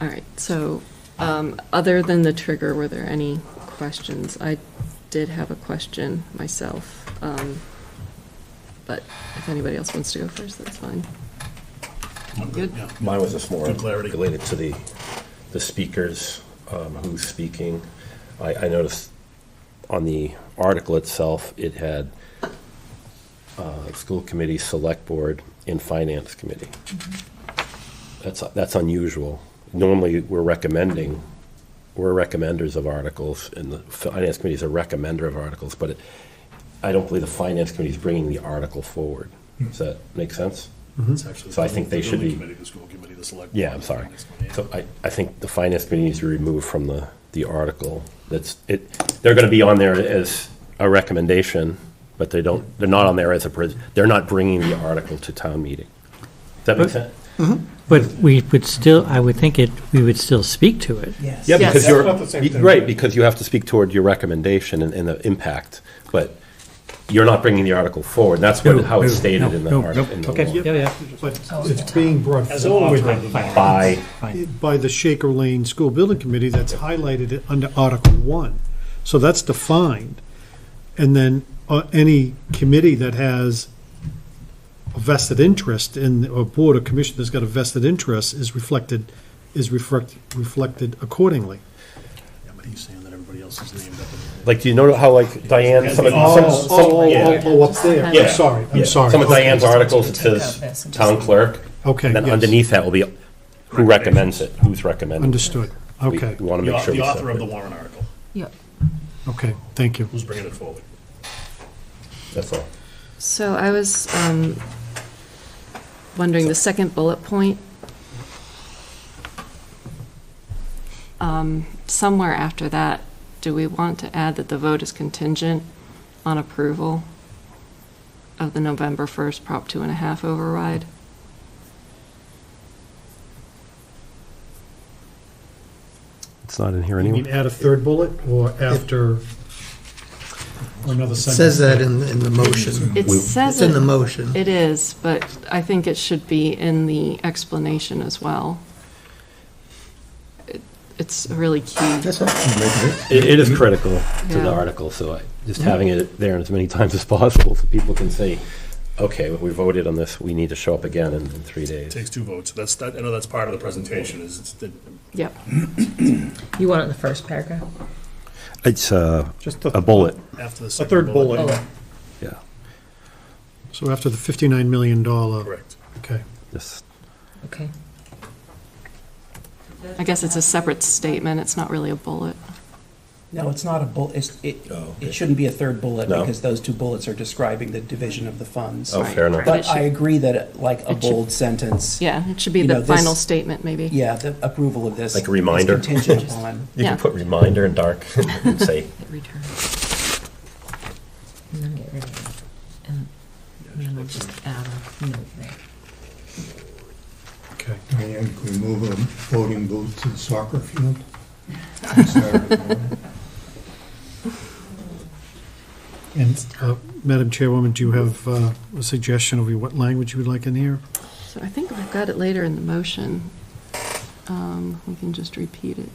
All right, so, um, other than the trigger, were there any questions? I did have a question myself, um, but if anybody else wants to go first, that's fine. Good. Yeah. Mine was just more Good clarity. related to the, the speakers, um, who's speaking. I, I noticed on the article itself, it had uh, school committee, select board, and finance committee. Mm-hmm. That's, that's unusual. Normally, we're recommending, we're recommenders of articles, and the finance committee is a recommender of articles, but it- I don't believe the finance committee is bringing the article forward. Hmm. Does that make sense? It's actually Mm-hmm. So I the think they building should be- committee, The school committee, the select. Yeah, board, I'm the sorry. finance committee. So I, I think the finance committee needs to be removed from the, the article. That's, it, they're gonna be on there as a recommendation, but they don't, they're not on there as a, pres- they're not bringing the article to town meeting. Does that make sense? But we would still, I would think it, we would still speak to it. Yes. Yeah, Yes. because That's you're, not the same thing. right, because you have to speak toward your recommendation and, and the impact, but you're not bringing the article forward. That's what, how it's stated in the no, article. in the law. Yeah, yeah. But it's being brought As an author forward of the bylaw. By, by the Shaker Lane School Building Committee that's highlighted it under Article One. So that's defined. And then uh, any committee that has a vested interest in, or board or commission that's got a vested interest is reflected, is reflect, reflected accordingly. Yeah, but he's saying that everybody else is named up. like, do you know how like Diane, some of, some, some- Oh, oh, yeah. oh, oh, up there, Yeah. I'm sorry, Yeah. I'm sorry. Some of Diane's Okay. articles, it out this says and just town leave it. clerk. Okay, And then yes. underneath that will be who recommends it, who's recommended. Understood, We- okay, We want The to make au- sure the we author of the separate. warrant article, Yep. okay, thank you. who's bringing it forward? That's all. So I was um, wondering, the second bullet point, um, somewhere after that, do we want to add that the vote is contingent on approval of the November 1st Prop Two and a Half override? It's not in here You mean add a third bullet, or after, or another It sentence? says that in, in the motion. It says It's in the it, motion. it is, but I think it should be in the explanation as well. It- It's a really key. It, it is critical to Yeah. the article, so I, just having it there as many times as possible so people can say, okay, we voted on this, we need to show up again in, in three It days. takes two votes, that's, that- I know that's part of the presentation, is it's the- Yep. You want it in the first paragraph? It's uh, a, Just bullet, after the A second. third bullet. Bullet. yeah, So after the $59 million. Oh, Correct. Okay. just. Okay. I guess it's a separate statement, it's not really a bullet. No, it's not a bullet, it's, it, it shouldn't be a third bullet, Oh, No. because those two bullets are describing the division of the funds. Oh, Right. fair enough. Right. But I agree that, like, a It should- bold sentence, Yeah, it should be You know, the this- final statement, maybe. yeah, the approval of this. Like a reminder. Is contingent upon, You Yeah. can put reminder in dark and say, Return. And then get rid of it. And then we'll just add a note there. Okay. Diane, Can we move a voting booth to the soccer field? Saturday morning? And uh, Madam Chairwoman, do you have uh, a suggestion of what language you would like in here? So I think we've got it later in the motion. Um, We can just repeat it.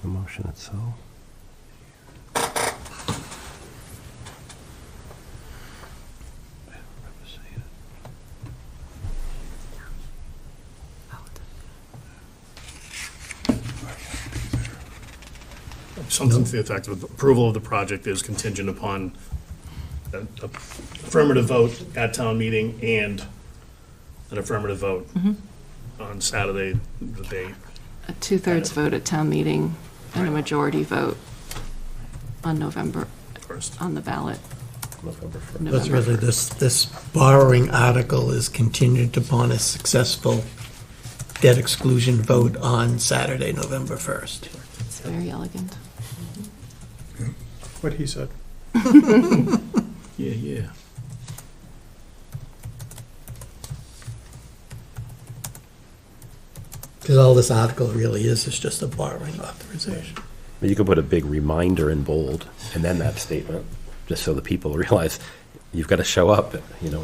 the motion itself. Something to the effect of approval of the project is contingent upon a- a affirmative vote at town meeting and an affirmative vote Mm-hmm. on Saturday, the date. A two-thirds vote at town meeting and a majority vote on November, first. on the ballot, November first. That's November really, this, this borrowing article is contingent upon a successful debt exclusion vote on Saturday, November 1st. It's very elegant. What he said. Yeah, yeah. Because all this article really is, is just a borrowing authorization. You could put a big reminder in bold and then that statement, just so the people realize you've got to show up, you know,